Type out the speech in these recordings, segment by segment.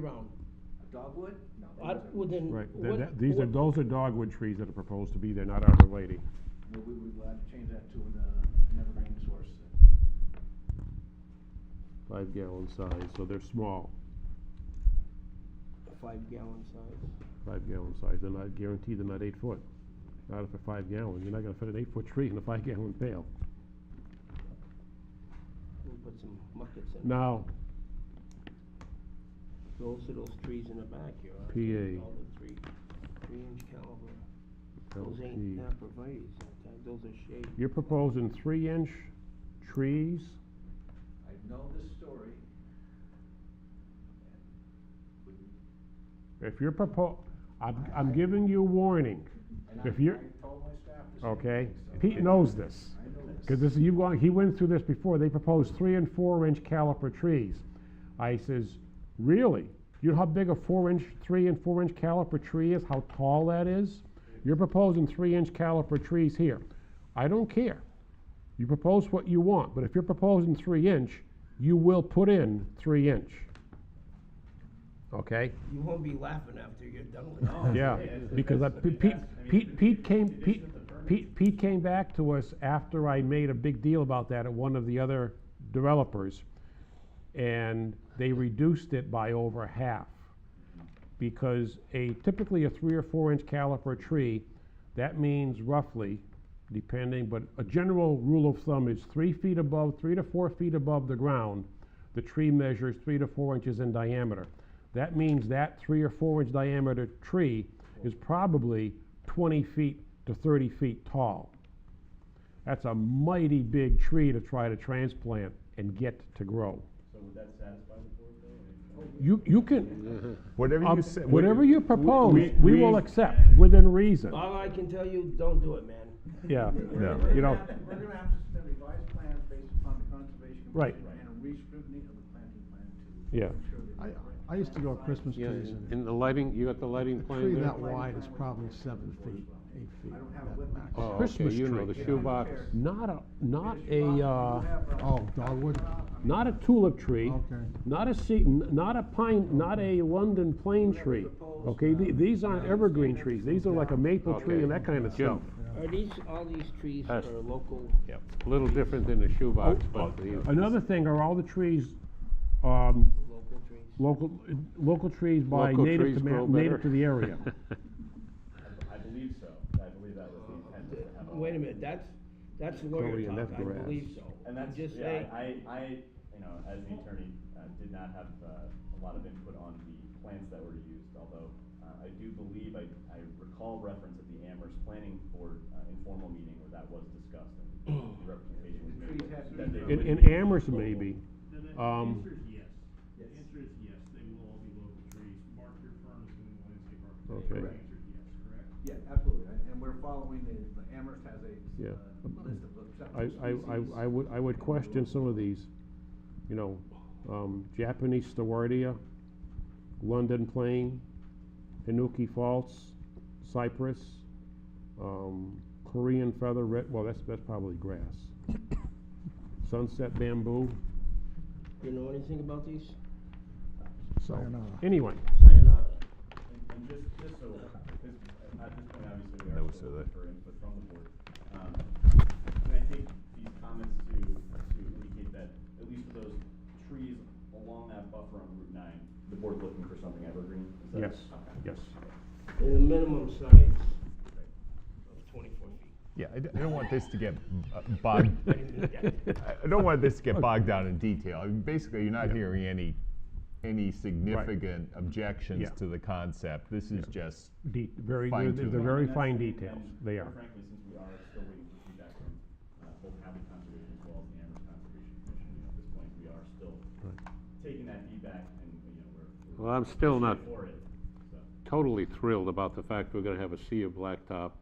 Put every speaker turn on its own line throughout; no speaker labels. around.
A Dogwood? No. they
I,
don't.
well, then.
Right,
what-
that, that, these are,
what-
those are dogwood trees that are proposed to be there, not arborvitae.
Well, we would uh, change that to an, uh, an evergreen source.
Five gallon size, so they're small,
a five gallon size.
five gallon size, and I guarantee they're not eight foot. Not if they're five gallon, you're not gonna fit an eight foot tree in a five gallon pail.
We'll put some muckets in.
Now,
Those are those trees in the backyard.
PA.
All the three, three inch caliber. Those ain't uh,
LP.
arborvitae's, sometimes those are shade.
you're proposing three inch trees,
I know this story. and wouldn't-
if you're propo, I'm, I'm giving you warning,
And I,
If you're-
I told my staff the same
okay?
thing, so I-
Pete knows this.
I know this.
Because this, you've gone, he went through this before, they proposed three and four inch caliper trees. I says, really? You know how big a four inch, three and four inch caliper tree is, how tall that is? You're proposing three inch caliper trees here. I don't care. You propose what you want, but if you're proposing three inch, you will put in three inch. Okay?
You won't be laughing after you're done with
No.
it.
Yeah,
Yeah, it's-
because I-
it's- I mean,
Pete,
that's- I mean,
Pete, Pete came, Pete,
condition of the permit.
Pete, Pete came back to us after I made a big deal about that at one of the other developers. And they reduced it by over half. Because a, typically a three or four inch caliper tree, that means roughly, depending, but a general rule of thumb is three feet above, three to four feet above the ground, the tree measures three to four inches in diameter. That means that three or four inch diameter tree is probably twenty feet to thirty feet tall. That's a mighty big tree to try to transplant and get to grow.
So would that satisfy the board though?
You, you can,
Whatever
um,
you say.
whatever you propose,
we-
we will
we-
accept within reason,
All I can tell you, don't do it, man.
yeah,
Yeah.
you know.
We're gonna have to submit revised plans based upon the conservation.
Right.
commission And a re-scrutiny of the planting plan to.
Yeah.
ensure that the
I,
correct
I used to
plan
go
size-
Christmas trees and
the lighting, you got the lighting
a tree that
there?
wide is probably seven feet, eight feet
I don't have
at
wood
max.
Oh, okay,
Christmas
you know,
tree.
the shoebox.
Not a, not
Because you
a,
have- you
uh,
have, uh,
Oh, dogwood?
not a tulip tree,
Okay.
not a sea, n- not a pine, not a London plane tree. Okay, the- these aren't evergreen trees, these are like a maple tree and that kind of stuff.
Are these, all these trees are
Us.
local?
A little different than the shoebox, but the.
Oh, Another thing, are all the trees, um,
Local trees.
local, local trees by
Local
native
trees
to, ma-
grow
native
better.
to the area?
I believe so, I believe that was the intent was to have all.
Wait a minute, that's, that's lawyer
Totally, and
talk,
that's
I
grass.
believe so.
And
I'm
that's,
just
yeah,
saying.
I, I, I, you know, as the attorney, uh, did not have, uh, a lot of input on the plants that were used, although, uh, I do believe, I, I recall reference at the Amherst Planning Board, uh, informal meeting where that was discussed and the representation was made.
The trees have to
that
be-
they
In, in
would be
Amherst
local.
maybe,
Then the
Um,
answer is yes. The
Yes.
answer is yes, they will all be local trees. Mark your firm is doing landscape
Okay.
architecture. The answer is yes, correct?
Yeah, absolutely, and- and we're following the, the Amherst has a.
Yeah.
uh, List of acceptable
I, I,
species.
I, I would, I would question some of these, you know, um, Japanese stewardia, London plane, Hinuki false, cypress, um, Korean feather, red, well, that's, that's probably grass. Sunset bamboo,
You know anything about these?
so,
Sayonara.
anyway,
Sayonara.
And, and just, just so, this, at this point, obviously, we
I
are
would
still
say
looking
that.
for input from the board. Um, And I take these comments to, to indicate that, at least for those trees along that buffer on Route nine, the board's looking for something evergreen, is that?
yes, yes.
And the minimum size of twenty-four feet.
Yeah, I don't, I don't want this to get uh, bogged, I I don't want this to get bogged down in detail. I mean, basically, you're not hearing any, any significant
Yeah.
objections to the concept. This is just,
De- very, they're,
Fine
they're
tuning.
very
And that's-
fine
and-
details,
and
they
quite
are.
Frankly, since we are still waiting for feedback from, uh, both Hadley Conservation as well as the Amherst Conservation Commission, you know, at this point, we are still taking that feedback and, you know, we're. we're
Well, I'm still not
pushing For it, so.
totally thrilled about the fact we're gonna have a sea of blacktop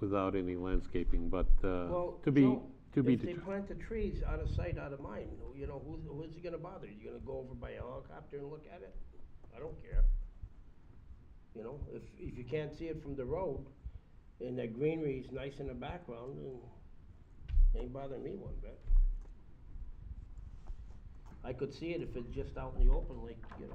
without any landscaping, but, uh,
Well,
to be,
Joe,
to be
If they
deter-
plant the trees out of sight, out of mind, you know, who's, who's it gonna bother? You gonna go over by a helicopter and look at it? I don't care. You know, if, if you can't see it from the road, and that greenery is nice in the background, then ain't bothering me one bit. I could see it if it's just out in the open, like, you know,